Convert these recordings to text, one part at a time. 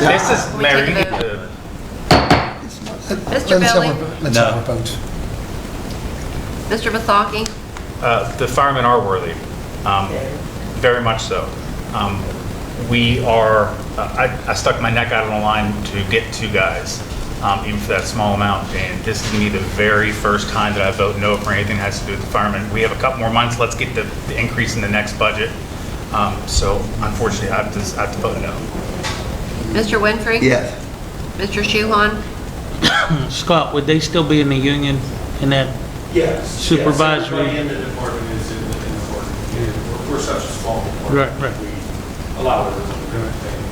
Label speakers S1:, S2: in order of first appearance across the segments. S1: This is Larry. uh,
S2: Mr.
S3: Let's have
S2: Billy,
S3: a- Let's
S1: No.
S3: have a vote.
S2: Mr. Vesalki,
S1: uh, The firemen are worthy, um, very much so. Um, We are, uh, I I stuck my neck out on the line to get two guys, um, even for that small amount, and this is going to be the very first time that I vote no for anything that has to do with the firemen. We have a couple more months, let's get the the increase in the next budget. Um, So unfortunately, I have to I have to vote no.
S2: Mr. Winfrey?
S4: Yes.
S2: Mr. Shuhon?
S5: Scott, would they still be in the union in that?
S6: Yes.
S5: Supervisory.
S6: Everybody in the department is in the, in the department. We're- We're such a small
S5: Right,
S6: department.
S5: right.
S6: We allow everything.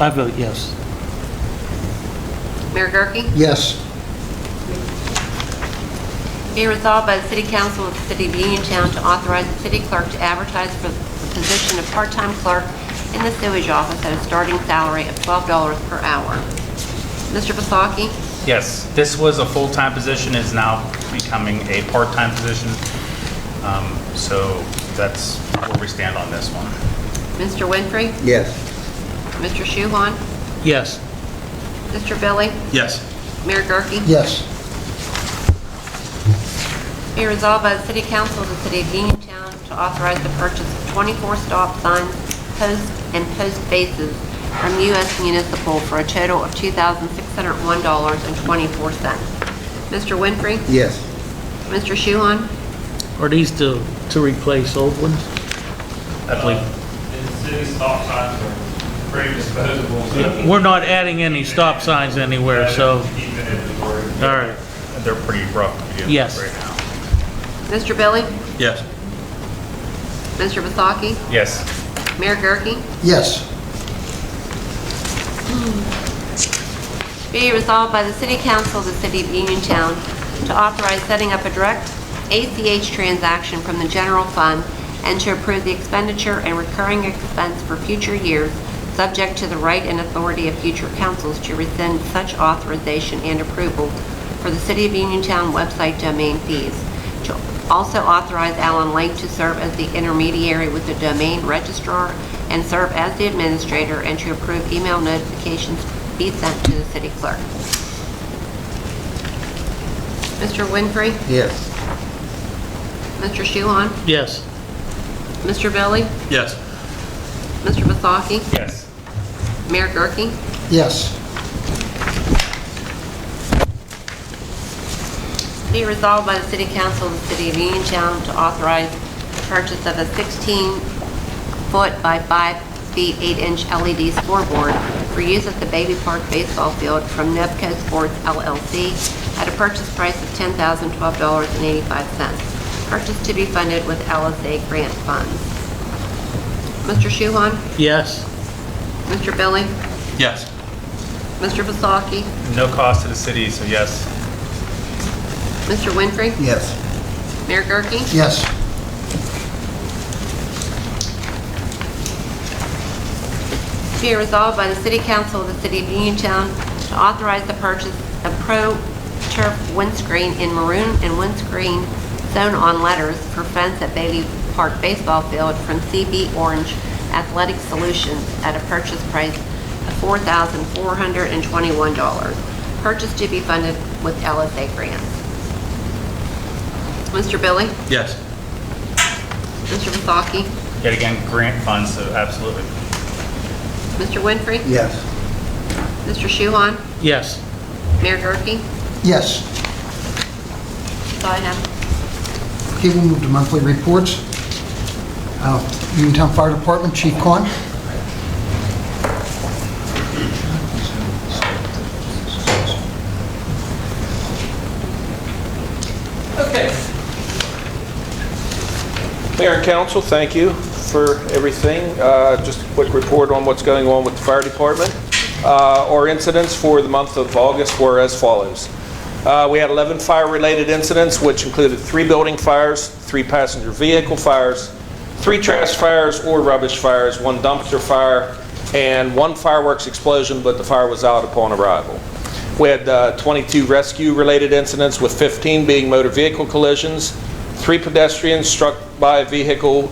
S5: I vote yes.
S2: Mayor Gurke?
S3: Yes,
S2: Be resolved by the City Council of the City of Uniontown to authorize the city clerk to advertise for the position of part-time clerk in the sewage office at a starting salary of $12 per hour. Mr. Vesalki?
S1: Yes, this was a full-time position, is now becoming a part-time position. Um, So that's where we stand on this one.
S2: Mr. Winfrey?
S4: Yes.
S2: Mr. Shuhon?
S5: Yes.
S2: Mr. Billy?
S1: Yes.
S2: Mayor Gurke?
S3: yes,
S2: Be resolved by the City Council of the City of Uniontown to authorize the purchase of 24 stop signs, posts, and post bases from U.S. Municipal for a total of $2,601.24. Mr. Winfrey?
S4: Yes.
S2: Mr. Shuhon?
S5: Are these to, to replace old ones? I believe.
S6: And city stop signs are pretty disposable.
S5: We're not adding any stop signs anywhere, so, all right.
S1: They're pretty rough to begin
S5: Yes.
S1: with right now.
S2: Mr. Billy?
S1: Yes.
S2: Mr. Vasaki?
S1: Yes.
S2: Mayor Gurke?
S3: yes,
S2: Be resolved by the City Council of the City of Uniontown to authorize setting up a direct ACH transaction from the general fund and to approve the expenditure and recurring expense for future years, subject to the right and authority of future councils to rescind such authorization and approval for the City of Uniontown website domain fees. To Also authorize Allen Lake to serve as the intermediary with the domain registrar and serve as the administrator and to approve email notifications be sent to the city clerk. Mr. Winfrey?
S4: Yes.
S2: Mr. Shuhon?
S5: Yes.
S2: Mr. Billy?
S1: Yes.
S2: Mr. Vasaki?
S1: Yes.
S2: Mayor Gurke?
S3: yes,
S2: Be resolved by the City Council of the City of Uniontown to authorize the purchase of a 16-foot by 5 feet 8-inch LED scoreboard for use at the Baby Park Baseball Field from Nebco Sports LLC at a purchase price of $10,012.85. Purchase to be funded with LSA grant funds. Mr. Shuhon?
S5: Yes.
S2: Mr. Billy?
S1: Yes.
S2: Mr. Vasaki?
S1: No cost to the city, so yes.
S2: Mr. Winfrey?
S4: Yes.
S2: Mayor Gurke?
S3: yes,
S2: Be it resolved by the City Council of the City of Uniontown to authorize the purchase of pro turf windscreen in maroon and windscreen sewn on letters for fence at Bailey Park Baseball Field from CB Orange Athletic Solutions at a purchase price of $4,421. Purchase to be funded with LSA grants. Mr. Billy?
S1: Yes.
S2: Mr. Vasaki?
S1: Yet again, grant funds, so absolutely.
S2: Mr. Winfrey?
S4: Yes.
S2: Mr. Shuhon?
S5: Yes.
S2: Mayor Gurke?
S3: yes.
S2: That's all I have.
S3: Okay, we'll move to monthly reports. Uh, Uniontown Fire Department, Chief Quan.
S7: Okay. Mayor and council, thank you for everything. Uh, Just a quick report on what's going on with the fire department. Uh, Our incidents for the month of August were as follows. Uh, We had 11 fire-related incidents, which included three building fires, three passenger vehicle fires, three trash fires or rubbish fires, one dumpster fire, and one fireworks explosion, but the fire was out upon arrival. We had uh, 22 rescue-related incidents, with 15 being motor vehicle collisions, three pedestrians struck by a vehicle